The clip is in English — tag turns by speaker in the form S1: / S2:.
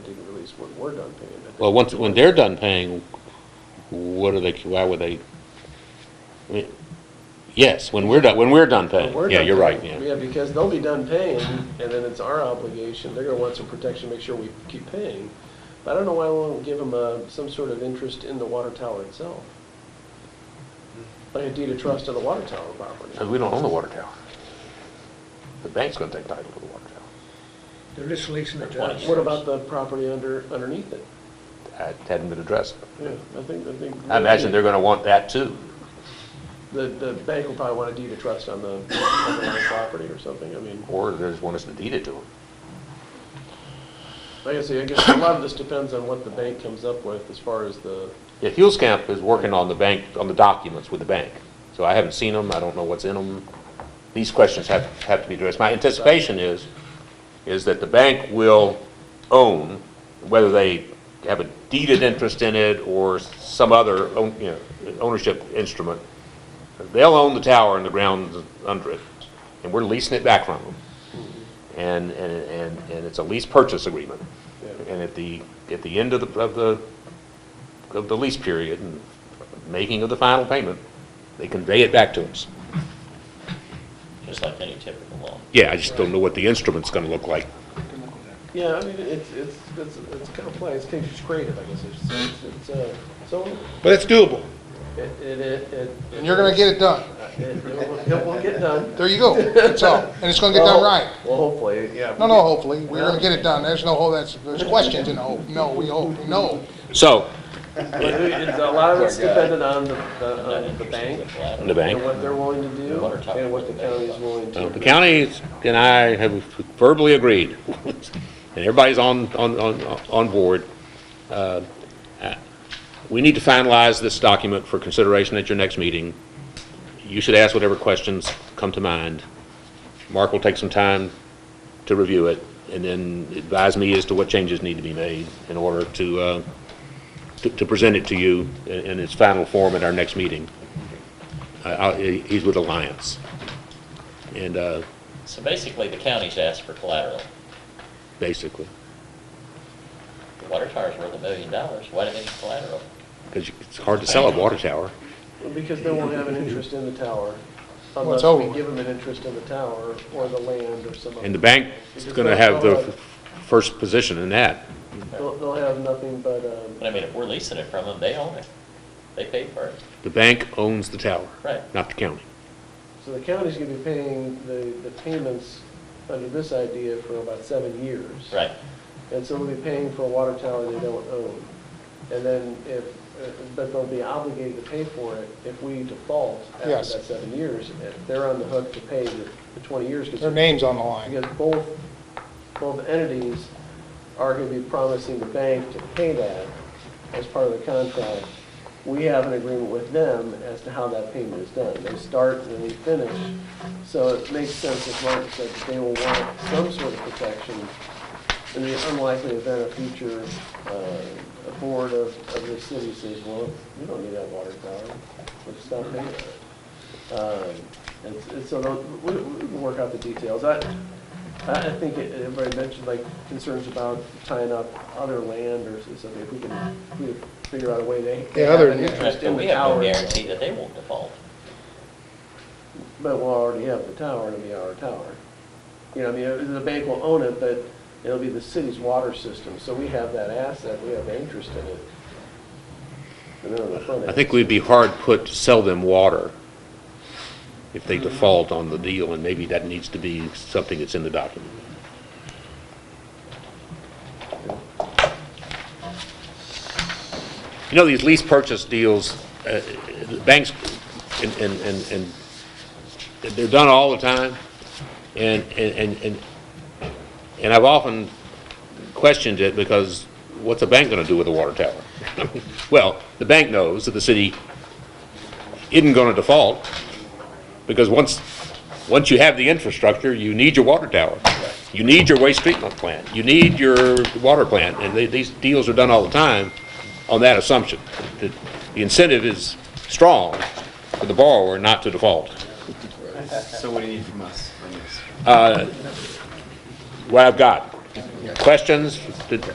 S1: is when we're done paying it.
S2: Well, once, when they're done paying, what are they, why would they? I mean, Yes, when we're done, when we're done
S1: When
S2: paying.
S1: we're
S2: Yeah,
S1: done
S2: you're right,
S1: paying.
S2: yeah.
S1: because they'll be done paying, and then it's our obligation, they're gonna want some protection, make sure we keep paying. But I don't know why we won't give them, uh, some sort of interest in the water tower itself. Like a deed of trust of the water tower property.
S2: Because we don't own the water tower. The bank's gonna take title to the water tower.
S3: They're just leasing it to us.
S1: What about the property under, underneath it?
S2: That hadn't been addressed.
S1: Yeah, I think, I think.
S2: I imagine they're gonna want that too.
S1: The, the bank will probably want a deed of trust on the underlying property or something, I mean,
S2: Or there's one that's deeded to them.
S1: like I say, I guess a lot of this depends on what the bank comes up with as far as the,
S2: Yeah, Camp is working on the bank, on the documents with the bank. So I haven't seen them, I don't know what's in them. These questions have, have to be addressed. My anticipation is, is that the bank will own, whether they have a deeded interest in it or some other, own- you know, ownership instrument, they'll own the tower and the grounds under it, and we're leasing it back from them. And, and, and and it's a lease purchase agreement.
S1: Yeah.
S2: And at the, at the end of the, of the of the lease period and making of the final payment, they convey it back to us.
S4: just like any typical loan.
S2: Yeah, I just don't know what the instrument's gonna look like.
S1: Yeah, I mean, it's, it's, it's, it's complex, it's it's creative, I guess, it's, it's- it's, uh, so,
S5: But it's doable,
S1: it, it, it- it. Uh,
S5: and you're gonna get it done.
S1: It, it will, it will get done.
S5: There you go, that's all, and it's gonna get done right.
S1: Well, hopefully, yeah.
S5: No, no, hopefully, we're gonna get it done, there's no hope, that's, there's questions in the hope, no, we hope, no.
S2: So,
S1: But it- it's, a lot of it's dependent on the, the- on the bank,
S2: the
S1: and
S2: bank,
S1: what they're willing to do, and what the county is willing
S2: uh, the
S1: to.
S2: county and I have verbally agreed, and everybody's on, on, on, on board. Uh, uh, We need to finalize this document for consideration at your next meeting. You should ask whatever questions come to mind. Mark will take some time to review it, and then advise me as to what changes need to be made in order to, uh, to- to present it to you in in its final form at our next meeting. Uh, I- I'll- he- He's with Alliance. And uh,
S4: So basically, the county's asked for collateral.
S2: basically,
S4: The water tower's worth a million dollars, why do they need collateral?
S2: because it's hard to sell a water tower.
S1: Because they won't have an interest in the tower,
S5: Well,
S1: unless
S5: it's
S1: we
S5: over.
S1: give them an interest in the tower, or the land, or some other.
S2: And the bank is going to have the f- first position in that.
S1: They'll, they'll have nothing but, um,
S4: But I mean, if we're leasing it from them, they own it. They paid for it.
S2: The bank owns the tower,
S4: Right.
S2: not the county.
S1: So the county's gonna be paying the, the payments under this idea for about seven years.
S4: Right.
S1: And so they'll be paying for a water tower they don't own. And then if, uh, but they'll be obligated to pay for it if we default
S5: Yes.
S1: after that seven years. If They're on the hook to pay the the 20 years. 'cause-
S5: Their name's on the line,
S1: Because both, both entities are going to be promising the bank to pay that as part of the contract. We have an agreement with them as to how that payment is done. They start and they finish. So it makes sense, as Mark said, that they will want some sort of protection in the unlikely event a future uh, a board of, of the city says, well, we don't need that water tower, we'll just stop paying it. Um, And s- and so they'll- we we can work out the details. I, I I think it- everybody mentioned like concerns about tying up other land or something. If we can if we can figure out a way they they
S5: Yeah,
S1: have
S5: other
S1: an
S5: than-
S1: interest
S4: But
S1: in
S4: we
S1: the
S4: have no
S1: tower.
S4: guarantee that they won't default.
S1: But we'll already have the tower, it'll be our tower. You know, I mean, uh, the bank will own it, but it'll be the city's water system. So we have that asset, we have interest in it. And then on the front
S2: I
S1: end-
S2: think we'd be hard put to sell them water if they default on the deal, and maybe that needs to be something that's in the document. You know, these lease purchase deals, uh, the banks, and, and, and- and they're done all the time, and, and, and- and, and I've often questioned it because what's a bank going to do with a water tower? Well, the bank knows that the city isn't going to default because once, once you have the infrastructure, you need your water tower. You need your waste treatment plant. You need your water plant. And they- these deals are done all the time on that assumption. that The incentive is strong for the borrower not to default.
S6: So what do you need from us on this?
S2: What I've got, questions? Did-